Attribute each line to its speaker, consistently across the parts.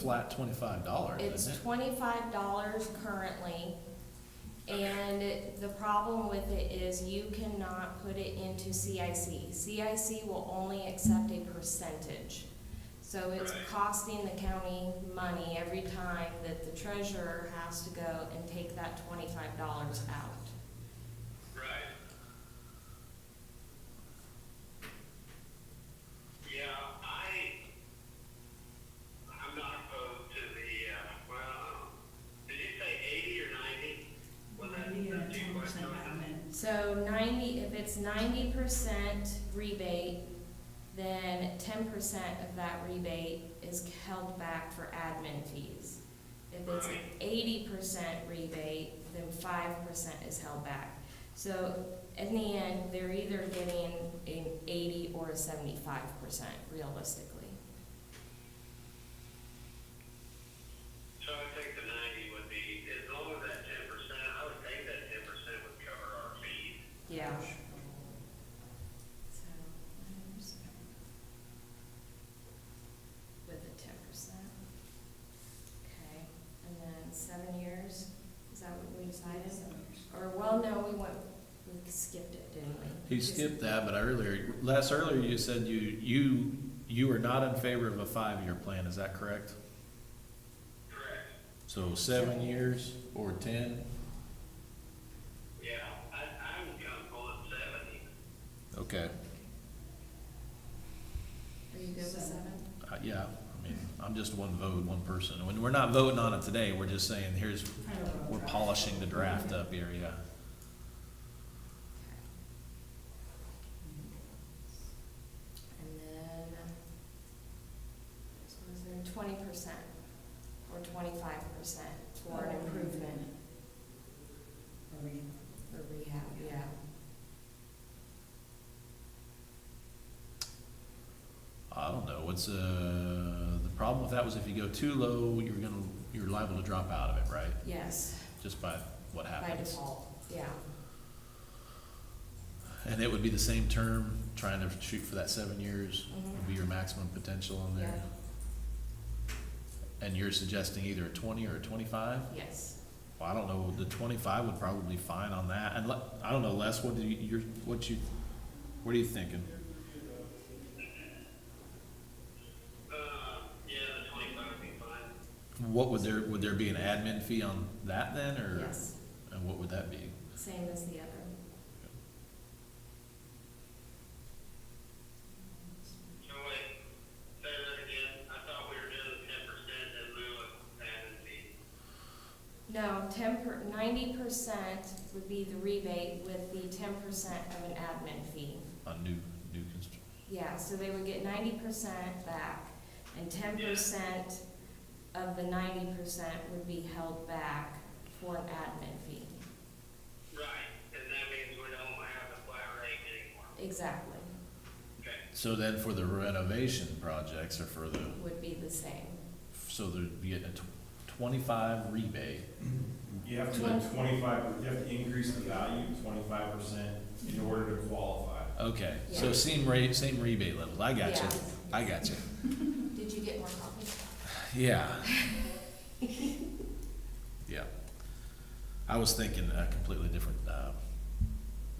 Speaker 1: flat twenty-five dollars,
Speaker 2: It's
Speaker 1: isn't it?
Speaker 2: twenty-five dollars currently, and the problem with it is you cannot put it into CIC. CIC will only accept a percentage. So it's
Speaker 3: Right.
Speaker 2: costing the county money every time that the treasurer has to go and take that twenty-five dollars out.
Speaker 3: Right. Yeah, I, I'm not opposed to the, uh, well, did you say eighty or ninety? Was that,
Speaker 4: Maybe a
Speaker 3: that two
Speaker 4: 10%
Speaker 3: questions?
Speaker 4: amendment.
Speaker 2: So ninety, if it's ninety percent rebate, then ten percent of that rebate is held back for admin fees. If it's
Speaker 3: Right.
Speaker 2: eighty percent rebate, then five percent is held back. So in the end, they're either getting an eighty or a seventy-five percent realistically.
Speaker 3: So I think the ninety would be, as long as that ten percent, I would think that ten percent would cover our fees.
Speaker 2: Yeah. With the ten percent. Okay, and then seven years, is that what we decided? Or, well, no, we went, we skipped it, didn't we?
Speaker 1: He skipped that, but I earlier, last earlier you said you, you, you are not in favor of a five-year plan, is that correct?
Speaker 3: Correct.
Speaker 1: So seven years or ten?
Speaker 3: Yeah, I, I'm comfortable at seventy.
Speaker 1: Okay.
Speaker 2: Are you good with seven?
Speaker 1: Uh, yeah, I mean, I'm just one vote, one person. When, we're not voting on it today, we're just saying, here's,
Speaker 4: Kind of a
Speaker 1: we're
Speaker 4: draft.
Speaker 1: polishing the draft up here, yeah.
Speaker 2: And then, so was there twenty percent or twenty-five percent for an improvement
Speaker 4: Are we-
Speaker 2: or rehab, yeah.
Speaker 1: I don't know, what's, uh, the problem with that was if you go too low, you're gonna, you're liable to drop out of it, right?
Speaker 2: Yes,
Speaker 1: Just by what
Speaker 2: by
Speaker 1: happens. Oh,
Speaker 2: default, yeah.
Speaker 1: And it would be the same term, trying to shoot for that seven years,
Speaker 2: Mm-hmm.
Speaker 1: would be your maximum potential in there. And you're suggesting either a twenty or a twenty-five?
Speaker 2: Yes.
Speaker 1: Well, I don't know, the twenty-five would probably be fine on that, and le- I don't know, Les, what do you, you're, what you, what are you thinking?
Speaker 3: Uh, yeah, the twenty-five would be fine.
Speaker 1: What would there, would there be an admin fee on that then, or?
Speaker 2: Yes,
Speaker 1: And what would that be?
Speaker 2: same as the other.
Speaker 3: So wait, say that again, I thought we were doing ten percent in lieu of admin fee.
Speaker 2: No, ten per, ninety percent would be the rebate with the ten percent of an admin fee.
Speaker 1: On new, new construction?
Speaker 2: Yeah, so they would get ninety percent back, and ten percent of the ninety percent would be held back for an admin fee.
Speaker 3: Right, and that means we don't have the flat rate anymore.
Speaker 2: Exactly,
Speaker 3: Okay.
Speaker 1: So then for the renovation projects or for the,
Speaker 2: would be the same.
Speaker 1: so there'd be a tw- twenty-five rebate,
Speaker 5: You have to
Speaker 2: Twen-
Speaker 5: twenty-five, you have to increase the value twenty-five percent in order to qualify.
Speaker 1: okay, so
Speaker 2: Yeah.
Speaker 1: same rate, same rebate levels, I got you,
Speaker 2: Yes.
Speaker 1: I got you,
Speaker 2: Did you get more copies?
Speaker 1: yeah. Yeah, I was thinking a completely different, uh,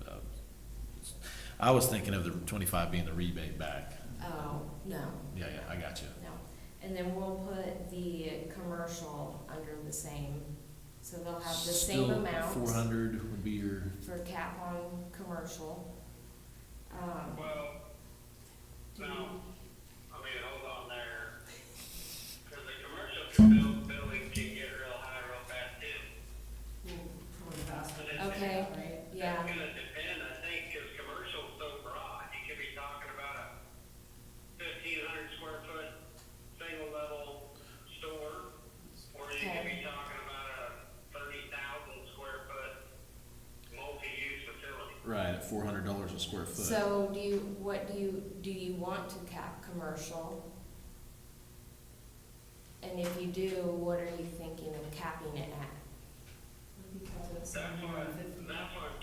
Speaker 1: uh, I was thinking of the twenty-five being the rebate back,
Speaker 2: Oh, no.
Speaker 1: yeah, yeah, I got you,
Speaker 2: No, and then we'll put the commercial under the same, so they'll have the same
Speaker 1: Four
Speaker 2: amount
Speaker 1: hundred would be your,
Speaker 2: for cap on commercial. Um,
Speaker 3: Well, no, I mean, hold on there. Cause the commercial buil- building can get real high real fast too.
Speaker 4: We'll probably pass
Speaker 3: But
Speaker 4: it,
Speaker 3: it's-
Speaker 2: Okay,
Speaker 4: right?
Speaker 2: yeah,
Speaker 3: It's gonna depend, I think, cause commercial's so broad, you could be talking about a fifteen hundred square foot, single level store, or you could be talking about a thirty thousand square foot multi-use facility.
Speaker 1: right, at four hundred dollars a square foot.
Speaker 2: so do you, what do you, do you want to cap commercial? And if you do, what are you thinking of capping it at?
Speaker 4: Because it's
Speaker 3: That's what,
Speaker 4: somewhere in the
Speaker 3: that's what